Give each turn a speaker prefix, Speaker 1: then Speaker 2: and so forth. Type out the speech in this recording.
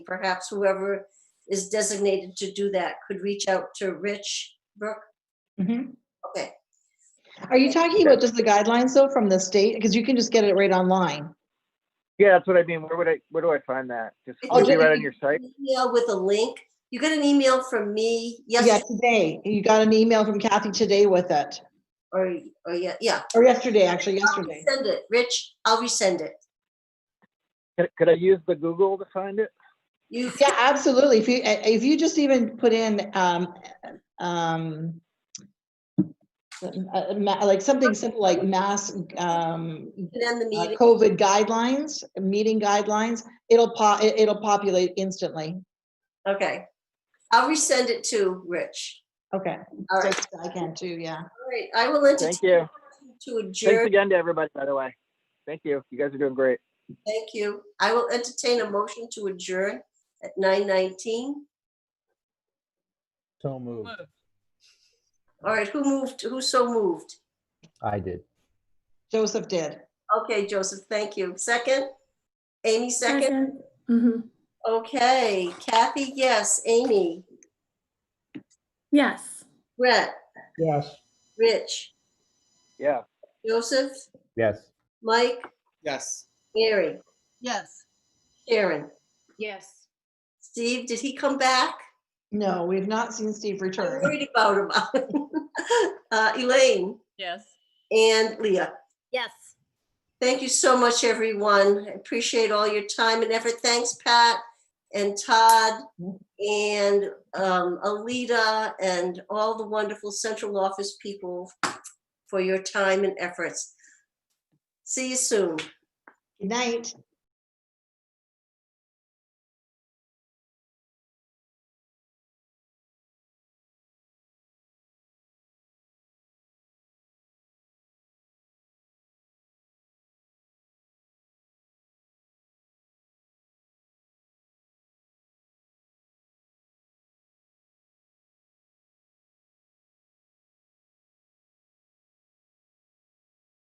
Speaker 1: perhaps whoever is designated to do that could reach out to Rich Brooke.
Speaker 2: Mhm.
Speaker 1: Okay,
Speaker 2: Are you talking about just the guidelines though from the state? Because you can just get it right online.
Speaker 3: Yeah, that's what I mean. Where would I, where do I find that? Just,
Speaker 1: It's
Speaker 3: would it be
Speaker 2: just-
Speaker 3: right on your site?
Speaker 1: email with a link. You got an email from me
Speaker 2: Yeah,
Speaker 1: yesterday,
Speaker 2: today. You got an email from Kathy today with it,
Speaker 1: or, or, yeah, yeah.
Speaker 2: or yesterday, actually,
Speaker 1: I'll
Speaker 2: yesterday.
Speaker 1: Send it, Rich, I'll resend it.
Speaker 3: Could, could I use the Google to find it?
Speaker 1: You,
Speaker 2: Yeah, absolutely. If you, eh, if you just even put in, um, um, uh, ma- like something simple like mass, um,
Speaker 1: can end the
Speaker 2: uh,
Speaker 1: meeting,
Speaker 2: COVID guidelines, meeting guidelines, it'll pop, it'll populate instantly.
Speaker 1: okay. I'll resend it to Rich.
Speaker 2: Okay.
Speaker 1: All right,
Speaker 2: So I can too, yeah.
Speaker 1: all right, I will entertain.
Speaker 3: Thank you.
Speaker 1: To
Speaker 3: Thanks
Speaker 1: adjourn,
Speaker 3: again to everybody, by the way. Thank you. You guys are doing great.
Speaker 1: thank you. I will entertain a motion to adjourn at nine nineteen.
Speaker 4: So moved.
Speaker 1: All right, who moved, who so moved?
Speaker 4: I did.
Speaker 2: Joseph did.
Speaker 1: Okay, Joseph, thank you. Second? Amy, second?
Speaker 5: Mhm.
Speaker 1: Okay, Kathy, yes. Amy,
Speaker 5: Yes.
Speaker 1: Brett,
Speaker 4: Yes.
Speaker 1: Rich,
Speaker 3: Yeah.
Speaker 1: Joseph,
Speaker 4: Yes.
Speaker 1: Mike,
Speaker 6: Yes.
Speaker 1: Mary,
Speaker 7: Yes.
Speaker 1: Sharon.
Speaker 7: Yes.
Speaker 1: Steve, did he come back?
Speaker 2: No, we've not seen Steve
Speaker 1: I'm
Speaker 2: return.
Speaker 1: worried about him. Uh, Elaine
Speaker 7: Yes.
Speaker 1: and Leah.
Speaker 7: Yes.
Speaker 1: Thank you so much, everyone. I Appreciate all your time and effort. Thanks, Pat and Todd and um, Alita and all the wonderful central office people for your time and efforts. See you soon.
Speaker 2: Good night.